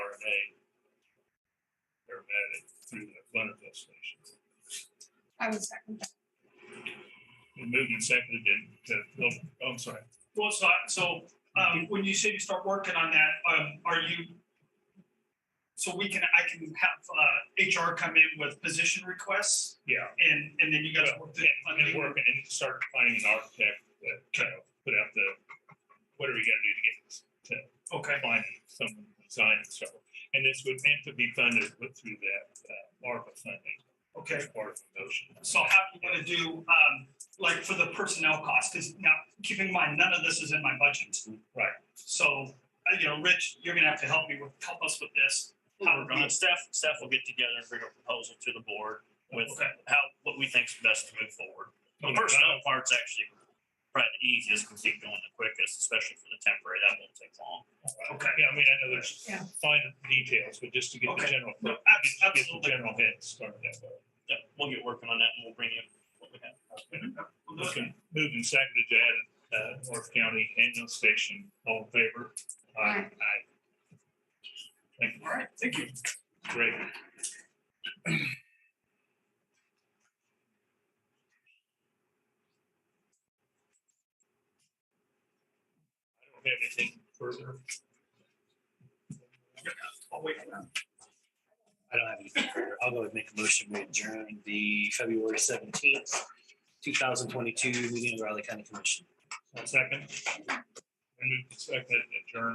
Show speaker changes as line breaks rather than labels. they they're vetted through the Leonardville station.
I would second that.
We moved and seconded it to, oh, I'm sorry.
Well, it's not, so, um, when you say you start working on that, um, are you? So we can, I can have, uh, HR come in with position requests
Yeah.
and, and then you guys work the
I'm gonna work and then start finding an architect that, you know, put out the, whatever you gotta do to get this,
Okay,
find someone to design it, so. And this would meant to be funded with- through that, uh, ARPA funding.
okay.
as Part of the motion.
So how do you want to do, um, like for the personnel cost? Because now, keep in mind, none of this is in my budget.
Right.
So, uh, you know, Rich, you're gonna have to help me with, help us with this. How we're
Uh,
gonna,
Staff, staff will get together and bring a proposal to the board with
Okay.
how, what we think is best to move forward. The
Okay.
personnel part's actually probably the easiest, because it's going the quickest, especially for the temporary, that won't take long.
okay.
Yeah, I mean, I know there's
Yeah.
fine details, but just to get the
Okay.
general,
No,
get
abs-
the
Absolutely.
general head started that way.
Yeah, we'll get working on that and we'll bring you what we have.
Okay, moved and seconded to add, uh, North County ambulance station, all in favor?
Aye.
Aye. Thank you.
All right, thank you.
Great. I don't have anything further.
I'll wait for that.
I don't have anything further. I'll go ahead and make a motion. We adjourn the February seventeenth, two thousand twenty-two meeting of Raleigh County Commission.
One second. I moved and seconded adjourn.